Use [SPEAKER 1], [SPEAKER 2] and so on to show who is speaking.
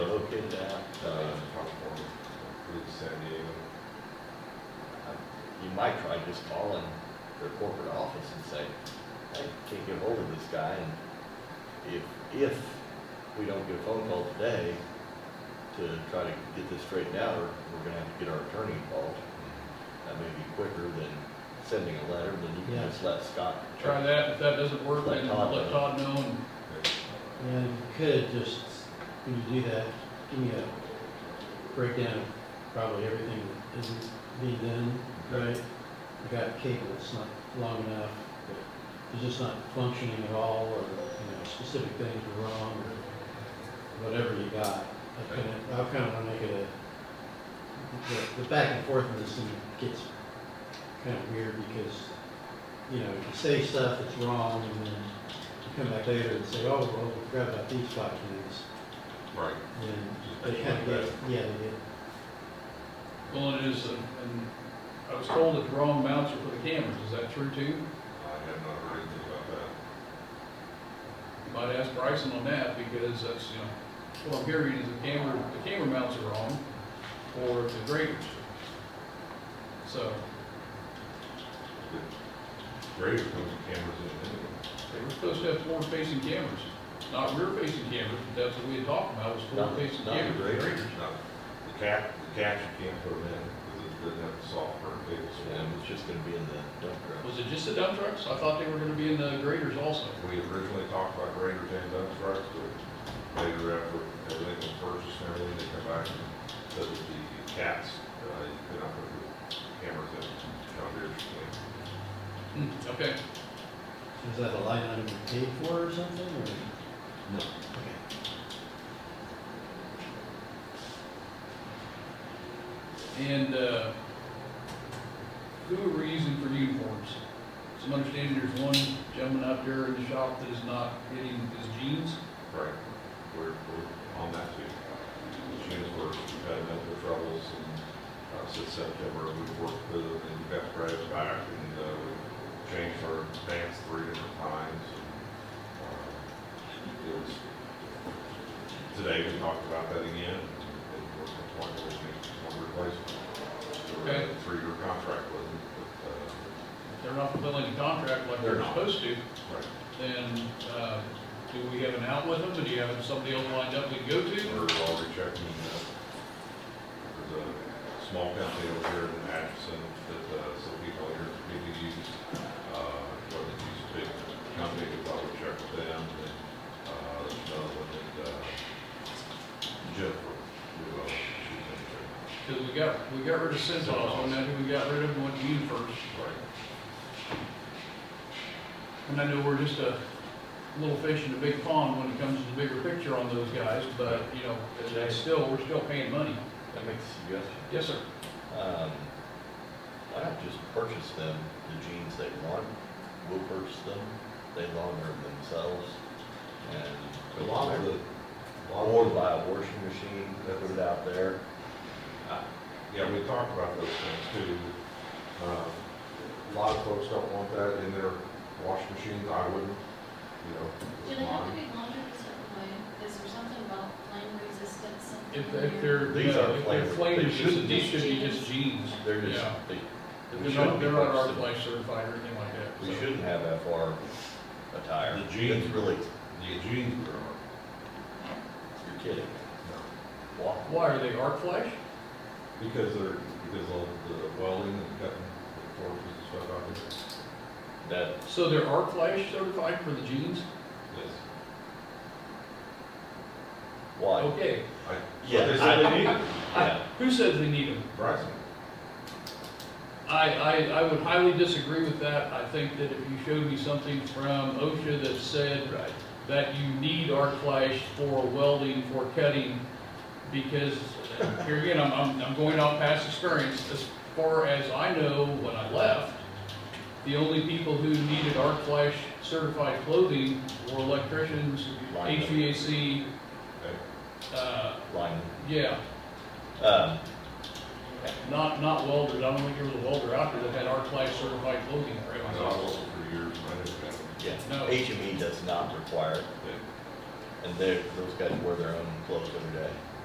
[SPEAKER 1] Uh,
[SPEAKER 2] uh, I tried just calling their corporate office and say, I can't get hold of this guy, and if, if we don't get a phone call today to try to get this straightened out, or we're gonna have to get our attorney involved. That may be quicker than sending a letter, then you
[SPEAKER 3] Yeah.
[SPEAKER 2] can just let Scott.
[SPEAKER 4] Try that, if that doesn't work,
[SPEAKER 2] Let
[SPEAKER 4] then
[SPEAKER 2] Todd
[SPEAKER 4] let
[SPEAKER 2] know.
[SPEAKER 4] Todd know, and
[SPEAKER 3] And if you could just, when you do that, give me a breakdown of probably everything that isn't being done, right? I got cable that's not long enough, but it's just not functioning at all, or, you know, specific things are wrong, or whatever you got. I kind of, I kind of want to make it a, the, the back and forth in this thing gets kind of weird because, you know, you say stuff that's wrong and then you come back later and say, oh, well, we forgot about these five things.
[SPEAKER 1] Right.
[SPEAKER 3] And
[SPEAKER 1] Just
[SPEAKER 3] they
[SPEAKER 1] make
[SPEAKER 3] kind of
[SPEAKER 1] it
[SPEAKER 3] get, yeah, they get,
[SPEAKER 4] well, it is, and and I was told that the wrong mounts are for the cameras, is that true too?
[SPEAKER 1] I have not heard anything about that.
[SPEAKER 4] You Might ask Bryson on that, because that's, you know, what I'm hearing is the camera, the camera mounts are wrong, or the graders. So,
[SPEAKER 1] Great, if those cameras in anyway.
[SPEAKER 4] they were supposed to have forward-facing cameras, not rear-facing cameras, but that's what we had talked about, was
[SPEAKER 2] Not-
[SPEAKER 4] forward-facing
[SPEAKER 2] not the
[SPEAKER 4] cameras.
[SPEAKER 2] grader.
[SPEAKER 4] graders.
[SPEAKER 1] Now, the cap, the caps you can't put them in, because it doesn't have the software, cable
[SPEAKER 2] And
[SPEAKER 1] swim.
[SPEAKER 2] it's just gonna be in the dump truck.
[SPEAKER 4] Was it just the dump trucks? I thought they were gonna be in the graders also.
[SPEAKER 1] We originally talked about graders and dump trucks, but later after everything was purchased and everything, they come back and said that the cats, uh, you could not put the cameras in, down there, you
[SPEAKER 4] Hmm, okay,
[SPEAKER 3] is that a line item you paid for or something, or?
[SPEAKER 2] No.
[SPEAKER 3] Okay.
[SPEAKER 4] and, uh, who are we using for uniforms? Some understanding there's one gentleman out there in the shop that is not getting his jeans.
[SPEAKER 1] can't. Right, we're, we're on that too. The units were, we've had mental troubles, and, uh, since September, we've worked with them, and we've got Brad's back, and, uh, we've changed our pants three different times, and, uh, it was Today, we talked about that again, and we're going to one replacement. There
[SPEAKER 4] Okay.
[SPEAKER 1] was a three-year contract with them, but, uh,
[SPEAKER 4] If they're not fulfilling the contract like
[SPEAKER 1] They're
[SPEAKER 4] they're
[SPEAKER 1] not.
[SPEAKER 4] supposed to,
[SPEAKER 1] uh, right,
[SPEAKER 4] then, uh, do we have an out with them? Do you have somebody else lined up we can go to?
[SPEAKER 1] we're already checking, uh, there's a small company over here in Atchison that, uh, some people here, people use, E, uh, what they use, big company, we probably check with them, and, uh, there's another one that, uh, Jennifer, who, uh, she's in there.
[SPEAKER 4] Because we got, we got rid of Centos, and now we got rid of one Union first.
[SPEAKER 1] Right.
[SPEAKER 4] And I know we're just a little fish in a big pond when it comes to the bigger picture on those guys, but, you know, it's still, we're still paying money.
[SPEAKER 2] That makes a suggestion.
[SPEAKER 4] Yes, sir.
[SPEAKER 2] Um, why not just purchase them, the jeans they want, we'll purchase them, they launder them themselves, and.
[SPEAKER 1] Launder?
[SPEAKER 2] Or buy a washing machine, put it out there.
[SPEAKER 1] Yeah, we talked about those things too. Uh, A lot of folks don't want that in their wash machines, I wouldn't, you know.
[SPEAKER 5] Do they have to be laundered a certain way? Is there something about flame resistance? something
[SPEAKER 4] If,
[SPEAKER 5] in
[SPEAKER 4] if
[SPEAKER 5] there?
[SPEAKER 4] they're,
[SPEAKER 2] These
[SPEAKER 4] no,
[SPEAKER 2] are
[SPEAKER 4] if they're
[SPEAKER 2] flavor-
[SPEAKER 4] flame
[SPEAKER 2] they
[SPEAKER 4] resistant,
[SPEAKER 2] shouldn't
[SPEAKER 4] these
[SPEAKER 2] be.
[SPEAKER 4] should be just jeans.
[SPEAKER 2] They're just,
[SPEAKER 4] Yeah.
[SPEAKER 2] they, we
[SPEAKER 4] They're
[SPEAKER 2] shouldn't
[SPEAKER 4] not,
[SPEAKER 2] be
[SPEAKER 4] they're not
[SPEAKER 2] purchasing.
[SPEAKER 4] Arclight certified or anything like that.
[SPEAKER 2] We
[SPEAKER 4] so.
[SPEAKER 2] shouldn't have FR attire.
[SPEAKER 1] The jeans-
[SPEAKER 2] That's Really,
[SPEAKER 1] The jeans are,
[SPEAKER 2] you're kidding.
[SPEAKER 1] no,
[SPEAKER 2] Why?
[SPEAKER 4] Why, are they arc flash?
[SPEAKER 1] because they're, because of the welding and cutting the forms and stuff out there.
[SPEAKER 2] That,
[SPEAKER 4] So they're arc flash certified for the jeans?
[SPEAKER 1] Yes.
[SPEAKER 2] why?
[SPEAKER 4] Okay.
[SPEAKER 1] I-
[SPEAKER 2] Yeah,
[SPEAKER 1] But Oh, they
[SPEAKER 2] I-
[SPEAKER 1] said they need it.
[SPEAKER 4] I- Who says they need them?
[SPEAKER 1] Bryson,
[SPEAKER 4] I, I, I would highly disagree with that. I think that if you showed me something from OSHA that said
[SPEAKER 2] Right.
[SPEAKER 4] that you need arc flash for welding, for cutting, because, here again, I'm, I'm, I'm going off past experience, as far as I know, when I left, the only people who needed arc flash certified clothing were electricians,
[SPEAKER 2] Linemen.
[SPEAKER 4] HVAC,
[SPEAKER 1] okay,
[SPEAKER 4] uh,
[SPEAKER 2] Line,
[SPEAKER 4] yeah,
[SPEAKER 2] um,
[SPEAKER 4] not, not welders, I don't think there was a welder out there that had arc flash certified clothing for
[SPEAKER 1] I
[SPEAKER 4] everyone.
[SPEAKER 1] was also for years, I didn't have it.
[SPEAKER 2] yeah,
[SPEAKER 4] No.
[SPEAKER 2] HME does not require, it,
[SPEAKER 1] They-
[SPEAKER 2] and they're, those guys wear their own clothes every day.